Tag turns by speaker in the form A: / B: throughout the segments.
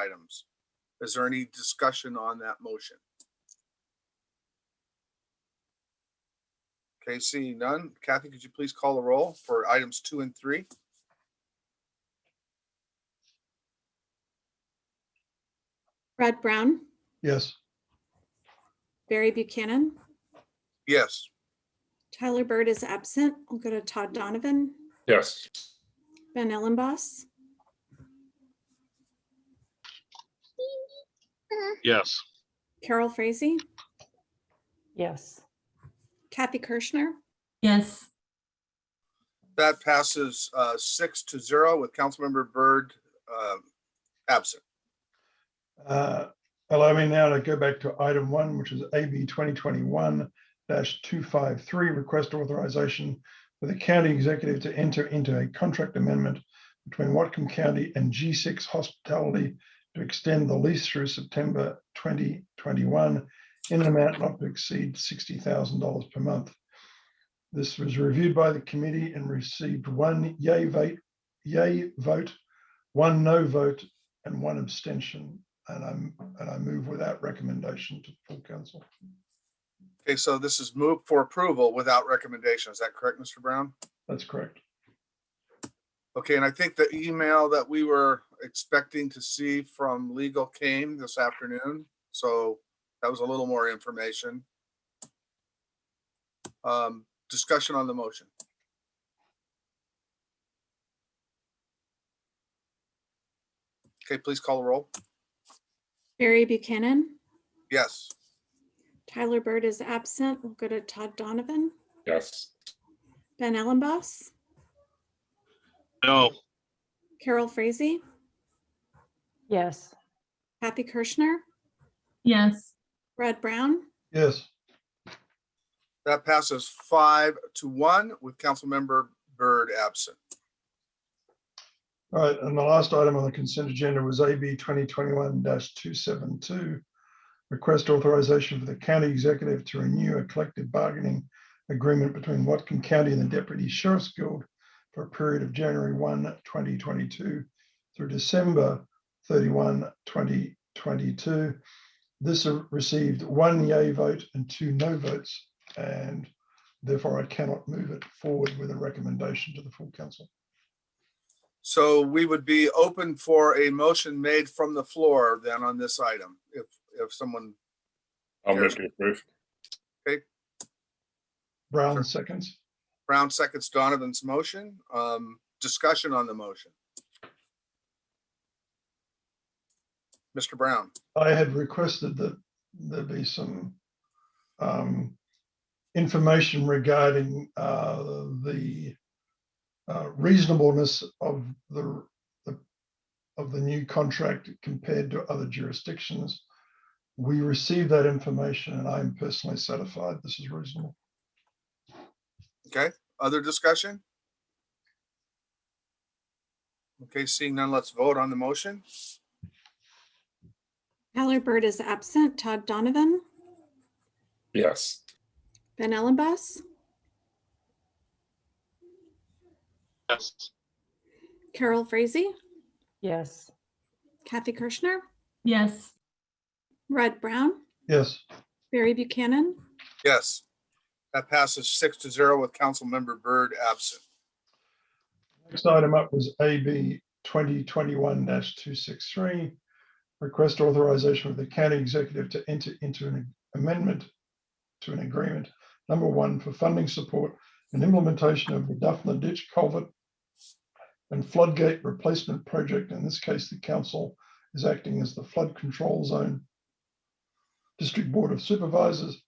A: items. Is there any discussion on that motion? Okay, seeing none. Kathy, could you please call the roll for items two and three?
B: Brad Brown,
C: Yes.
B: Barry Buchanan,
A: Yes,
B: Tyler Bird is absent. I'll go to Todd Donovan,
D: Yes.
B: Ben Ellenboss,
D: Yes.
B: Carol Frazee,
E: Yes.
B: Kathy Kirschner,
F: yes,
A: that passes uh, six to zero with Councilmember Byrd um, absent.
C: Uh, Allow me now to go back to item one, which is AB twenty twenty-one two five three, request authorization for the county executive to enter into a contract amendment between Watcom County and G six Hospitality to extend the lease through September twenty twenty-one in an amount not to exceed sixty thousand dollars per month. This was reviewed by the committee and received one yay vote, yay vote, one no vote, and one abstention. And I'm, and I move with that recommendation to full council.
A: Okay, so this is moved for approval without recommendation. Is that correct, Mr. Brown?
C: That's correct.
A: Okay, and I think the email that we were expecting to see from legal came this afternoon, so that was a little more information. Um, discussion on the motion. Okay, please call the roll.
B: Barry Buchanan,
A: Yes,
B: Tyler Bird is absent. We'll go to Todd Donovan,
D: Yes.
B: Ben Ellenboss,
D: No.
B: Carol Frazee,
E: Yes.
B: Kathy Kirschner,
F: yes,
B: Brad Brown,
C: Yes,
A: that passes five to one with Councilmember Byrd absent.
C: all right. And the last item on the consent agenda was AB twenty twenty-one two seven two. Request authorization for the county executive to renew a collective bargaining agreement between Watcom County and the Deputy Sheriff's Guild for a period of January 1, 2022, through December 31, 2022. This uh, received one yay vote and two no votes, and therefore I cannot move it forward with a recommendation to the full council.
A: So we would be open for a motion made from the floor then on this item, if, if someone
D: I'll move to approve.
C: Brown seconds.
A: Brown seconds Donovan's motion. Um, discussion on the motion. Mr. Brown,
C: I had requested that there be some um, information regarding uh, the uh, reasonableness of the the- of the new contract compared to other jurisdictions. We received that information and I'm personally satisfied this is reasonable.
A: other discussion? Okay, seeing none, let's vote on the motion.
B: Tyler Bird is absent. Todd Donovan,
D: Yes.
B: Ben Ellenboss,
D: Yes.
B: Carol Frazee,
E: Yes.
B: Kathy Kirschner,
F: yes.
B: Brad Brown,
C: Yes,
B: Barry Buchanan,
A: Yes. That passes six to zero with Councilmember Byrd absent.
C: next item up was AB twenty twenty-one two six three. Request authorization of the county executive to enter into an amendment to an agreement, number one, for funding support and implementation of the Duffner Ditch Culvert and Floodgate Replacement Project. In this case, the council is acting as the flood control zone District Board of Supervisors.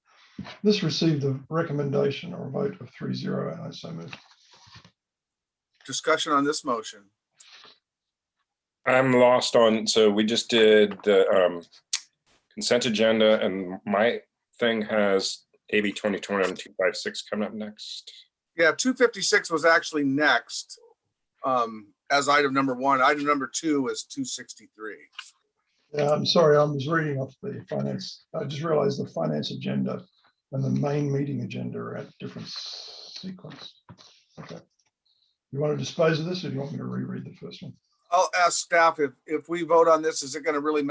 C: This received a recommendation or a vote of three zero, and I so move.
A: Discussion on this motion.
D: I'm lost on, so we just did the um, consent agenda and my thing has AB 2021-256 coming up next.
A: Yeah, two fifty-six was actually next. Um, as item number one, item number two is two sixty-three.
C: Yeah, I'm sorry, I was reading off the finance, I just realized the finance agenda and the main meeting agenda are at different sequence. Okay. You want to dispose of this or do you want me to reread the first one?
A: I'll ask staff if, if we vote on this, is it going to really